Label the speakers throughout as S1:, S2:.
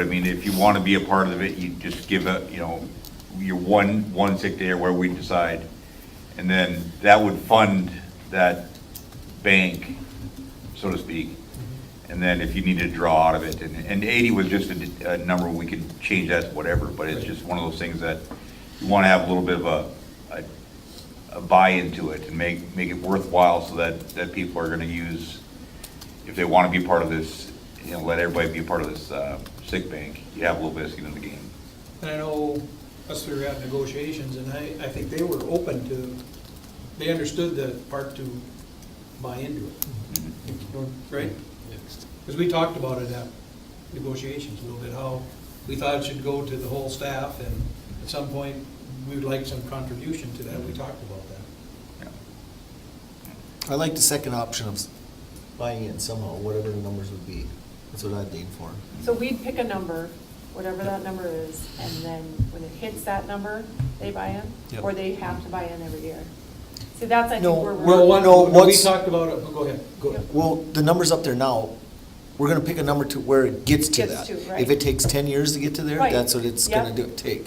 S1: I mean, if you want to be a part of it, you just give a, you know, your one, one sick day or where we decide. And then that would fund that bank, so to speak. And then if you need to draw out of it, and, and eighty was just a, a number, we could change that to whatever, but it's just one of those things that you want to have a little bit of a, a, a buy into it and make, make it worthwhile so that, that people are going to use if they want to be part of this, you know, let everybody be a part of this uh, sick bank, you have a little bit of skin in the game.
S2: And I know us three were at negotiations, and I, I think they were open to, they understood the part to buy into it, right? Because we talked about it at negotiations a little bit, how we thought it should go to the whole staff, and at some point, we would like some contribution to that, we talked about that.
S1: Yeah.
S3: I like the second option of s- buying it somehow, whatever the numbers would be. That's what I'd lean for.
S4: So we'd pick a number, whatever that number is, and then when it hits that number, they buy in?
S3: Yep.
S4: Or they have to buy in every year? See, that's, I think,
S3: No,
S4: where we're.
S3: Well,
S2: Well,
S3: one- no,
S2: one, we
S3: what's-
S2: talked about it, go ahead.
S3: Go-
S4: Yep.
S3: Well, the number's up there now. We're gonna pick a number to where it gets to
S4: Gets
S3: that.
S4: to,
S3: If
S4: right.
S3: it takes ten years to get to there,
S4: Right.
S3: that's what it's gonna
S4: Yep.
S3: do, take.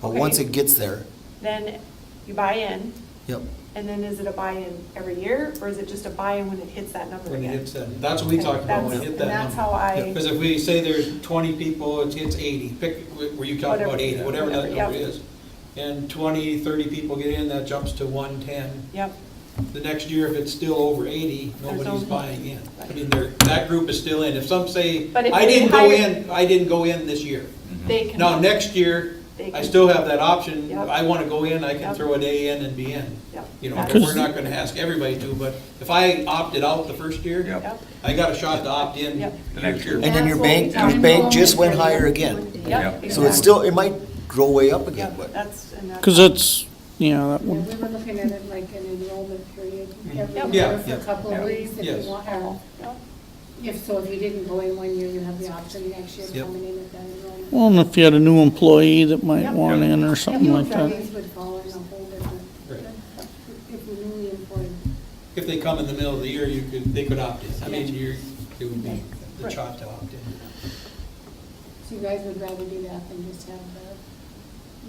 S3: But
S4: Okay.
S3: once it gets there,
S4: Then you buy in,
S3: yep,
S4: and then is it a buy-in every year, or is it just a buy-in when it hits that number
S2: When it
S4: again?
S2: hits that, that's what we talked about, when it hit that
S4: And
S2: number.
S4: that's how I-
S2: Because if we say there's twenty people, it's, it's eighty, pick, were you talking about
S4: Whatever,
S2: eighty, whatever that
S4: whatever, yeah.
S2: number is. And 20, 30 people get in, that jumps to one-ten.
S4: Yep,
S2: The next year, if it's still over eighty,
S4: There's
S2: nobody's
S4: only-
S2: buying in. I mean, they're, that group is still in. If some say,
S4: But if
S2: I
S4: they
S2: didn't go
S4: hire-
S2: in, I didn't go in this year.
S4: they can.
S2: Now, next year,
S4: They
S2: I
S4: can-
S2: still have that option.
S4: Yep.
S2: I want to go in, I can
S4: Yep.
S2: throw a day in and be in.
S4: Yep.
S2: You know,
S4: That's-
S2: we're not going to ask everybody to, but if I opted out the first year,
S1: Yep.
S4: Yep,
S2: I got a shot to opt in
S4: Yep.
S2: the next year.
S3: And then your
S5: That's what we
S3: bank- your
S5: talked
S3: bank
S5: about
S3: just went
S5: before
S3: higher
S5: you
S3: again.
S5: went there.
S4: yep.
S1: Yep.
S3: so it's
S4: exactly.
S3: still, it might grow way up again,
S4: Yep,
S3: but
S4: that's. and that's-
S6: Because it's, you know, that
S5: Yeah,
S6: would,
S5: we were looking at it like an enrollment period
S4: Yeah.
S5: every year for
S2: Yeah.
S5: a couple
S1: Yeah.
S5: of weeks if
S2: Yes.
S5: you want, or
S4: Yep.
S5: if, so if you didn't go in one year, you have the option next year
S2: Yep.
S5: of coming in at that enrollment.
S6: well, and if you had a new employee that might
S4: Yep.
S6: want in or something
S5: New
S6: like that.
S5: employees would fall in a whole
S2: Right.
S5: different, if you're newly employed.
S2: If they come in the middle of the year, you could, they could opt in. I mean, you're, it would be the shot to opt in.
S5: So you guys would rather do that than just have the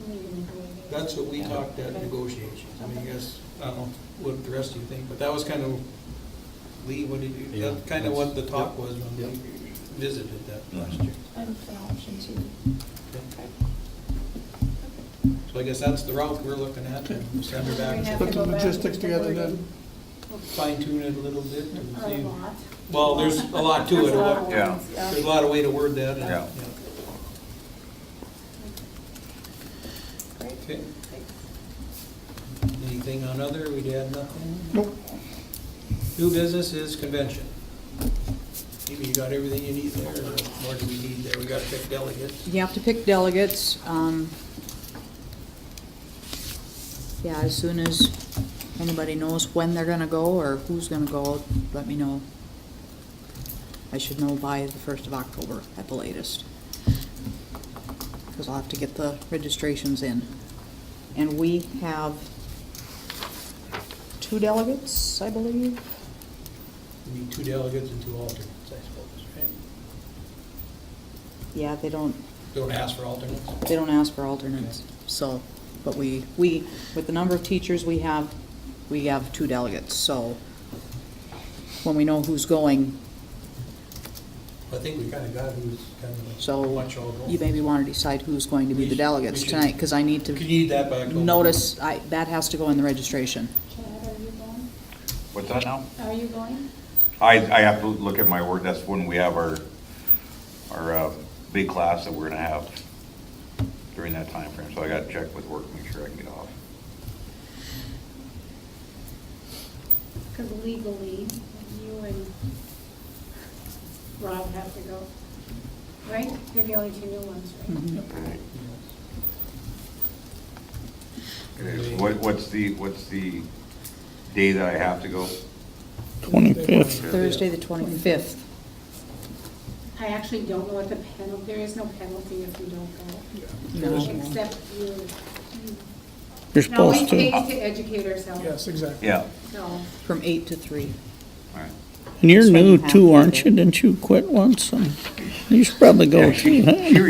S5: newly employed.
S2: That's what we talked at negotiations. I mean, I guess, I don't know what the rest of you think, but that was kind of, Lee, what did you,
S3: Yeah,
S2: that's kind of what the talk was when we
S3: Yep. Mm-hmm.
S2: visited that last year.
S7: And for option two.
S2: So I guess that's the route we're looking at and send her
S5: We
S2: back,
S5: have
S2: to
S8: Put
S5: to
S8: the
S5: go back
S8: logistics
S5: with the
S8: together
S5: wording
S2: fine tune it a little bit and
S5: A
S2: see.
S5: lot.
S2: Well, there's a lot to
S4: That's
S2: it,
S4: a
S2: a
S4: lot of
S2: lot-
S1: Yeah.
S4: ones,
S2: there's a lot of way to word that. and-
S1: Yeah.
S4: Great.
S2: Okay. Anything on other, we'd add nothing?
S8: Nope.
S2: New business is convention. Maybe you got everything you need there, or more do we need there? We got to pick delegates.
S9: You have to pick delegates. um, Yeah, as soon as anybody knows when they're gonna go or who's gonna go, let me know. I should know by the first of October at the latest. Because I'll have to get the registrations in. And we have two delegates, I believe.
S2: We need two delegates and two alternates, I suppose, right?
S9: Yeah, they don't,
S2: Don't ask for alternates.
S9: They don't ask for alternates, so, but we, we, with the number of teachers we have, we have two delegates, so when we know who's going,
S2: I think we kind of got who's kind of.
S9: so
S2: Watch all go.
S9: you maybe want to decide who's going to be the delegates
S2: We should-
S9: tonight, because I need
S2: Could
S9: to
S2: you need that by October?
S9: notice, I, that has to go in the registration.
S5: Chad, are you going?
S1: What's that now?
S5: Are you going?
S1: I, I have to look at my work, that's when we have our, our uh, big class that we're gonna have during that time frame. so I gotta check with work, make sure I can get off.
S5: Because legally, you and Rob have to go, right? You're the only two new ones,
S2: Mm-hmm.
S5: right?
S9: Mhm.
S1: Okay, What, what's the, what's the day that I have to go?
S6: Twenty-fifth,
S9: Thursday, the twenty-fifth.
S5: I actually don't know what the penalty, there is no penalty if you don't go.
S9: No.
S5: Except you.
S6: you're
S5: Now, we
S6: supposed to.
S5: pay to educate ourselves,
S8: Yes, exactly.
S1: Yeah,
S5: so.
S9: From eight to three.
S1: all right.
S6: And you're
S9: That's why
S6: new
S9: you have
S6: too,
S9: to
S6: aren't
S9: do
S6: you? Didn't you quit once? And You should probably go
S1: Yeah, she-
S6: too, huh?
S1: she retired